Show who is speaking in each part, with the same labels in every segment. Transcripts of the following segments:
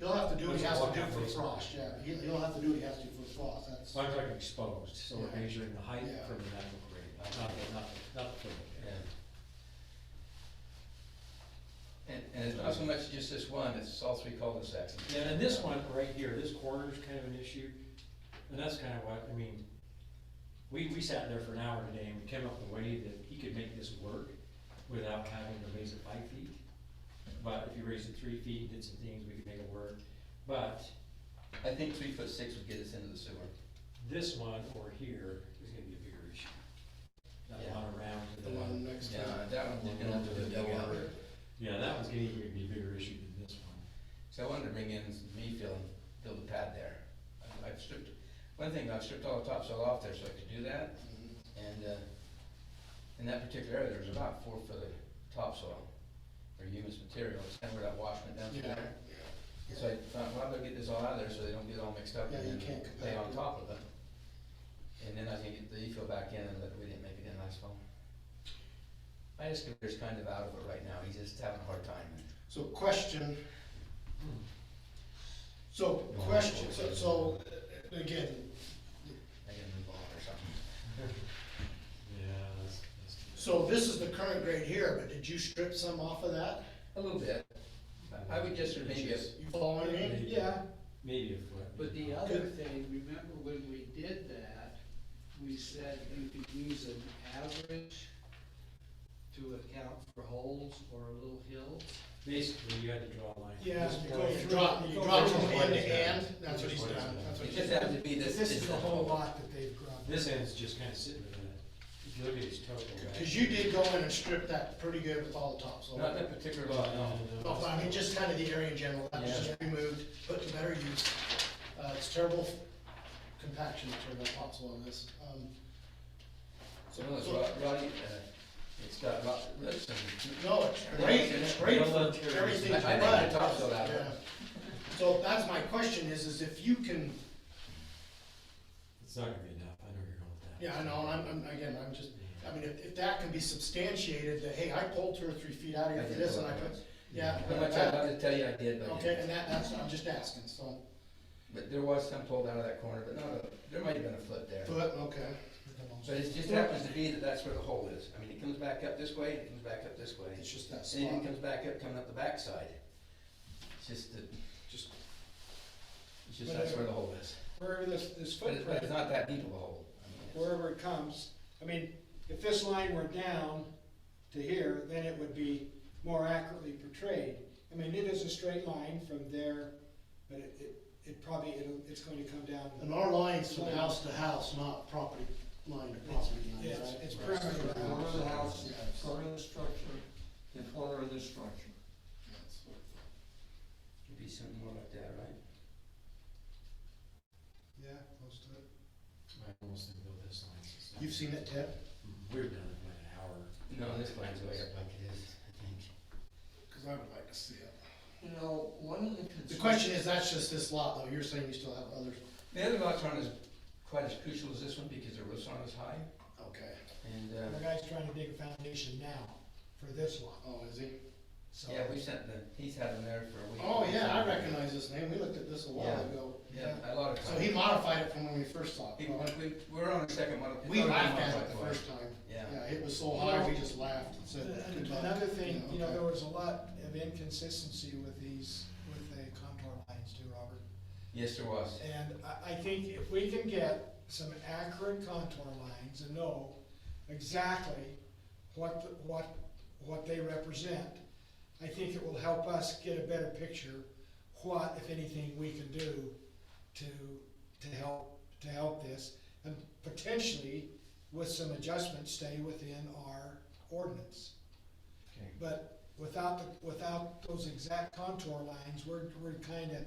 Speaker 1: to do what he has to do for frost, yeah, He- he'll have to do what he has to do for frost, that's,
Speaker 2: So I'm talking exposed, so we're measuring the height
Speaker 1: Yeah.
Speaker 2: from the natural grade, not, not, not, not from, and
Speaker 3: And, and it's not so much just this one, it's all three cul-de-sacs.
Speaker 2: Yeah, and this one right here, this corner's kind of an issue, and that's kind of what, I mean, we, we sat there for an hour today and we came up with a way that he could make this work without having to raise it five feet. But if you raised it three feet, did some things, we could make it work. But
Speaker 3: I think three foot six would get us into the sewer.
Speaker 2: this one over here is gonna be a bigger issue. That one around to the
Speaker 1: the one
Speaker 2: one,
Speaker 1: next
Speaker 3: Yeah,
Speaker 1: time.
Speaker 3: that one's gonna have to be dug out.
Speaker 2: yeah, that one's getting to be a bigger issue than this one.
Speaker 3: So I wanted to bring in some me fill, build a pad there. I- I've stripped, one thing, I've stripped all the topsoil off there so I could do that. And, uh, in that particular area, there's about four foot of topsoil or humus material, it's kind of where that wash went down through
Speaker 1: Yeah,
Speaker 3: there. So I thought, well, I'll go get this all out of there so uh, they don't get all mixed up
Speaker 1: Yeah, you
Speaker 3: and
Speaker 1: can't
Speaker 3: then lay on
Speaker 1: compact it.
Speaker 3: top of it. And then I can get the e-fill back in and that we didn't make it in asphalt. My excavator's kind of out of it right now, he's just having a hard time.
Speaker 1: so question.
Speaker 2: Hmm.
Speaker 1: So, question, so, so, uh, again,
Speaker 3: I gotta move on or something.
Speaker 2: Yeah, that's, that's.
Speaker 1: so this is the current grade here, but did you strip some off of that?
Speaker 3: A little bit. I- I would guess there'd maybe a,
Speaker 1: You following me?
Speaker 4: Yeah,
Speaker 2: Maybe a foot.
Speaker 4: but the other thing, remember when we did that, we said you could use an average to account for holes or little hills.
Speaker 2: Basically, you had to draw a line.
Speaker 1: Yeah, you go, you drop, you drop from hand to hand, that's what he's done, that's what
Speaker 3: it
Speaker 1: he's
Speaker 3: just
Speaker 1: done.
Speaker 3: happened to be this.
Speaker 5: This is the whole lot that they've grown.
Speaker 2: This end's just kind of sitting in that, if you look at his total. right?
Speaker 1: Cause you did go in and strip that pretty good with all the topsoil.
Speaker 3: Not that particular
Speaker 2: uh,
Speaker 3: lot, no.
Speaker 1: Well, I mean, just kind of the area in general, that was just removed, put to better use. Uh, it's terrible compaction, terrible topsoil on this. Um,
Speaker 3: So no, it's rot- rotty, uh, it's got rot, roots and.
Speaker 1: No, it's great, it's great
Speaker 2: Well,
Speaker 1: for everything
Speaker 3: I- I
Speaker 1: but.
Speaker 3: think the topsoil out of it.
Speaker 1: Yeah. So that's my question is, is if you can,
Speaker 2: It's not gonna be enough, I know where you're going with that.
Speaker 1: yeah, I know, I'm, I'm, again, I'm just, I mean, if, if that can be substantiated, that, hey, I pulled two or three feet out of here for this and I put, yeah.
Speaker 3: How
Speaker 1: but
Speaker 3: much I'd
Speaker 1: that-
Speaker 3: love to tell you I did, but. I
Speaker 1: Okay,
Speaker 3: didn't.
Speaker 1: and that, that's, I'm just asking, so,
Speaker 3: But there was some pulled out of that corner, but not a, there might have been a foot there.
Speaker 1: but, okay.
Speaker 3: But it just happens to be that that's where the hole is. I mean, it comes back up this way, it comes back up this way.
Speaker 1: It's just that
Speaker 3: And then it
Speaker 1: spot,
Speaker 3: comes back up, coming up the backside. It's just that,
Speaker 1: just,
Speaker 3: it's just that's where the hole is.
Speaker 5: Wherever this, this
Speaker 3: But it- but it's
Speaker 5: footprint,
Speaker 3: not that deep of a hole. I mean, it's-
Speaker 5: wherever it comes, I mean, if this line were down to here, then it would be more accurately portrayed. I mean, it is a straight line from there, but it, it, it probably, it'll, it's going to come
Speaker 1: and
Speaker 5: down.
Speaker 1: our lines from house to house, not property line to property line,
Speaker 5: It's,
Speaker 1: right?
Speaker 5: it's
Speaker 6: Corner
Speaker 5: perimeter.
Speaker 6: of the house,
Speaker 1: Yes.
Speaker 6: corner of the structure, the corner of the structure.
Speaker 3: It'd be something more like that, right?
Speaker 1: Yeah, close to it.
Speaker 2: I almost didn't build this line. it's just-
Speaker 1: You've seen it, Ted?
Speaker 2: We've done it by an hour.
Speaker 3: No, this line's way up like it is, I think.
Speaker 1: Because I would like to see it.
Speaker 6: You know, one of the concerns.
Speaker 1: The question is, that's just this lot, though, you're saying you still have other,
Speaker 3: The other lots aren't as, quite as crucial as this one because the roofs aren't as high.
Speaker 1: okay,
Speaker 3: And,
Speaker 7: The
Speaker 3: uh,
Speaker 7: guy's trying to dig a foundation now for this one,
Speaker 1: oh, is he?
Speaker 7: so.
Speaker 3: yeah, we sent the, he's had them there for a week.
Speaker 1: Oh, yeah, I recognize this name, we looked at this a while
Speaker 3: Yeah.
Speaker 1: ago.
Speaker 3: Yeah, a lot of times.
Speaker 1: So he modified it from when we first saw it.
Speaker 3: We, we- we're on the second one.
Speaker 1: We laughed at it the first time.
Speaker 3: Yeah.
Speaker 1: Yeah, it was so high, we just laughed and said.
Speaker 7: And
Speaker 1: "Good luck,"
Speaker 7: Another thing, you know,
Speaker 1: okay.
Speaker 7: there was a lot of inconsistency with these, with the contour lines too, Robert.
Speaker 3: Yes, there was.
Speaker 7: And I, I think if we can get some accurate contour lines and know exactly what, the- what, what they represent, I think it will help us get a better picture what, if anything, we can do to, to help, to help this. And potentially, with some adjustments, stay within our ordinance.
Speaker 2: Okay.
Speaker 7: But without, the without those exact contour lines, we're, we're kind of,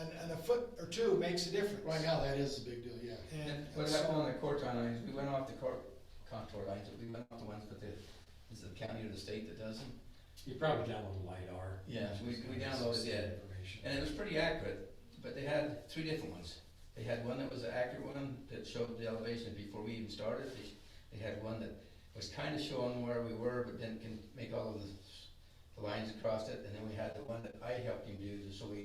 Speaker 7: and, and a foot or two makes a difference.
Speaker 1: Right now, that is a big deal, yeah.
Speaker 7: And
Speaker 3: And what happened on the contour lines, we went off the cor- contour lines, but we went off the ones that the, is it the county or the state that does them?
Speaker 2: You probably downloaded LiDAR.
Speaker 3: Yeah, we- we
Speaker 2: Just
Speaker 3: downloaded
Speaker 2: some
Speaker 3: it.
Speaker 2: information.
Speaker 3: And it was pretty accurate, but they had three different ones. They had one that was an accurate one that showed the elevation before we even started. They, they had one that was kind of showing where we were, but then can make all of the, the lines across it. And then we had the one that I helped him do, so we